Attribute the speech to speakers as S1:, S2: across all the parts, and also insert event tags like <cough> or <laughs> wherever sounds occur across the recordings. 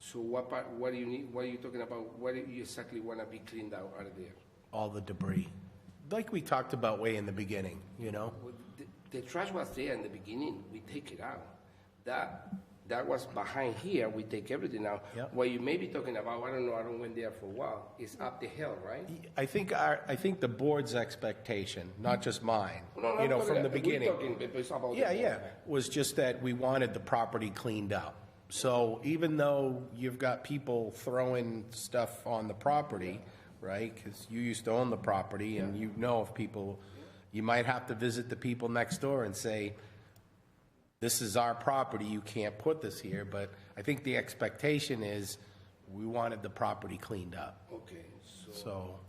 S1: So what part, what do you need, what are you talking about? What do you exactly want to be cleaned out out of there?
S2: all the debris. Like we talked about way in the beginning, you know?
S1: Well, the- The trash was there in the beginning, we take it out. That, that was behind here, we take everything out.
S2: Yep.
S1: What you may be talking about, I don't know, I don't went there for a while, is up the hill, right?
S2: I think our, I think the board's expectation, not just mine,
S1: No, no,
S2: you
S1: I'm
S2: know,
S1: talking
S2: from the
S1: about- we're
S2: beginning.
S1: talking, but it's about the
S2: Yeah,
S1: board.
S2: yeah, was just that we wanted the property cleaned up. So even though you've got people throwing stuff on the property, right, because you used to own the property and you know if people, you might have to visit the people next door and say, this is our property, you can't put this here, but I think the expectation is we wanted the property cleaned up,
S1: Okay, so.
S2: so,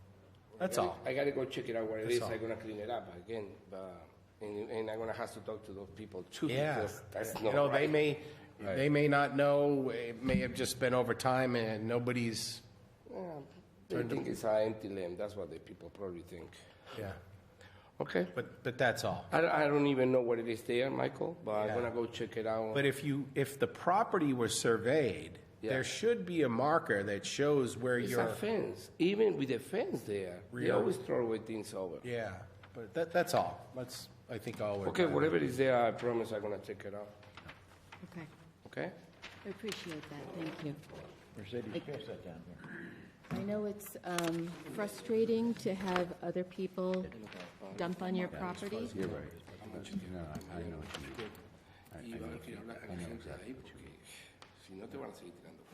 S2: that's all.
S1: I gotta go check it out what it
S2: That's
S1: is,
S2: all.
S1: I'm gonna clean it up again, but, and, and I'm gonna have to talk to those people too.
S2: Yeah,
S1: because That's
S2: you
S1: not
S2: know, they
S1: right.
S2: may,
S1: Right.
S2: they may not know, it may have just been over time and nobody's,
S1: Yeah, They think it's an empty land, that's what the people probably think.
S2: yeah,
S1: Okay,
S2: but, but that's all.
S1: I, don't- I don't even know what it is there, Michael, but I'm
S2: Yeah.
S1: gonna go check it out.
S2: But if you, if the property were surveyed,
S1: Yeah.
S2: there should be a marker that shows where
S1: It's a
S2: you're,
S1: fence, even with the fence there, they
S2: Real.
S1: always throw away things over.
S2: yeah, but that, that's all, that's, I think, all we're.
S1: Okay, whatever is there, I promise I'm gonna check it out,
S3: Okay,
S1: okay?
S3: I appreciate that, thank you.
S4: Mercedes, pass that down here.
S3: I know it's um, frustrating to have other people dump on your property.
S4: You're right. No, I I know what you mean.
S1: eh?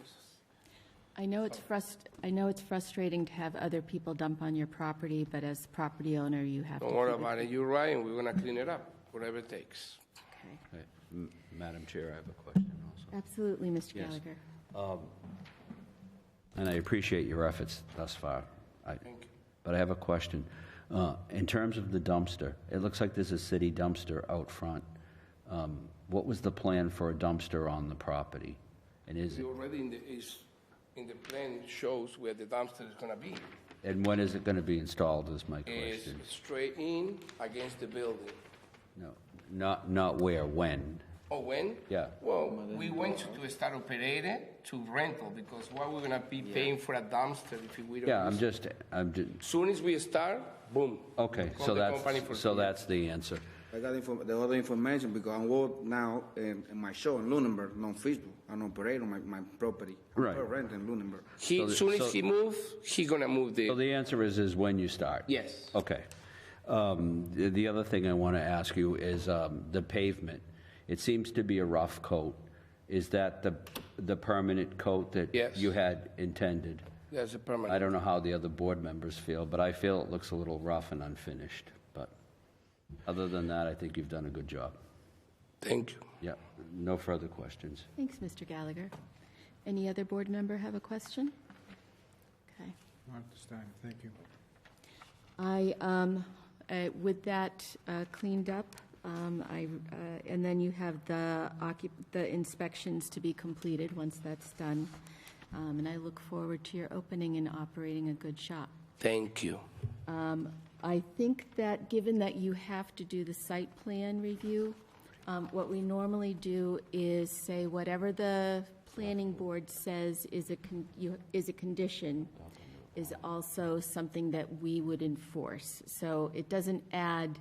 S3: I know it's frust, I know it's frustrating to have other people dump on your property, but as property owner, you have to.
S1: Don't worry
S3: keep
S1: about it, you're right, and we're gonna clean it up, whatever it takes.
S3: Okay.
S4: Right. M- Madam Chair, I have a question also.
S3: Absolutely, Mr.
S4: Yes.
S3: Gallagher.
S4: And I appreciate your efforts thus far. Thank you. But I have a question. Uh, In terms of the dumpster, it looks like there's a city dumpster out front. Um, What was the plan for a dumpster on the property? And is,
S1: It
S4: it-
S1: already in the, is, in the plan it shows where the dumpster is gonna be.
S2: Oh,
S4: and when is it going to be installed is my
S1: Is
S4: question.
S1: straight in against the building.
S4: No, not, not where, when?
S1: Oh, when?
S4: Yeah.
S1: Well, we went to start operating to rental, because why we're gonna be paying for a dumpster if we don't?
S4: Yeah, I'm
S1: use-
S4: just, I'm just,
S1: Soon as we start, boom.
S4: okay,
S1: Call
S4: so
S1: the company for-
S4: that's, so that's the answer.
S5: I got inform- the other information because I'm work now in, in my show in Lunenburg, not Facebook. I'm operating my, my property. I'm
S4: Right.
S5: Rent in Lunenburg.
S1: He,
S4: So the-
S1: soon
S4: so-
S1: as he move, he gonna move
S4: So
S1: the,
S4: the answer is, is when you start?
S1: yes.
S4: Okay. Um, The the other thing I want to ask you is um, the pavement. It seems to be a rough coat. Is that the, the permanent coat that
S1: Yes.
S4: you had intended?
S1: That's a
S4: I
S1: permanent.
S4: don't know how the other board members feel, but I feel it looks a little rough and unfinished. But other than that, I think you've done a good job.
S1: Thank you.
S4: Yeah, no further questions.
S3: Thanks, Mr. Gallagher. Any other board member have a question? Okay.
S6: Not this time, thank you.
S3: I, um, uh, with that uh, cleaned up, um, I, uh, and then you have the occup, the inspections to be completed once that's done. Um, And I look forward to your opening and operating a good shop.
S1: Thank you.
S3: I think that, given that you have to do the site plan review, um, what we normally do is say whatever the planning board says is a, con- you- is a condition is also something that we would enforce. So it doesn't add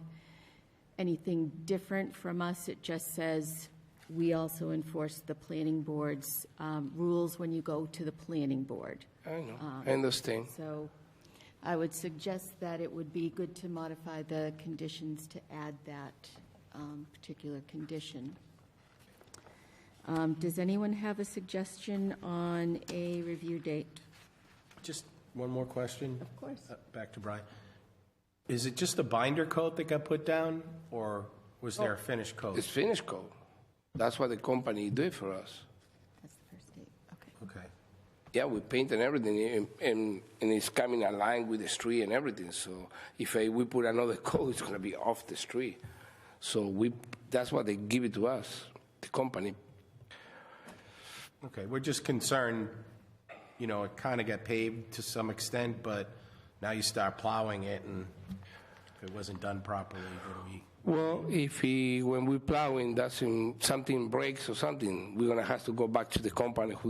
S3: anything different from us, it just says we also enforce the planning board's um, rules when you go to the planning board.
S1: I know, I understand.
S3: So I would suggest that it would be good to modify the conditions to add that um, particular condition. Um, Does anyone have a suggestion on a review date?
S2: Just one more question. Of
S3: course.
S2: Back to Brian. Is it just the binder coat that got put down, or was there a finished coat?
S1: Oh. It's finished code. That's what the company did for us.
S3: That's the first date, okay.
S2: Okay.
S1: Yeah, we paint and everything, and, and, and it's coming aligned with the street and everything. So if I, we put another <laughs> code, it's gonna be off the street. So we, that's what they give it to us, the company.
S2: Okay, we're just concerned, you know, it kind of got paved to some extent, but now you start plowing it, and if it wasn't done properly, then we,
S1: Well, if he, when we plowing, that's in, something breaks or something, we're gonna have to go back to the company who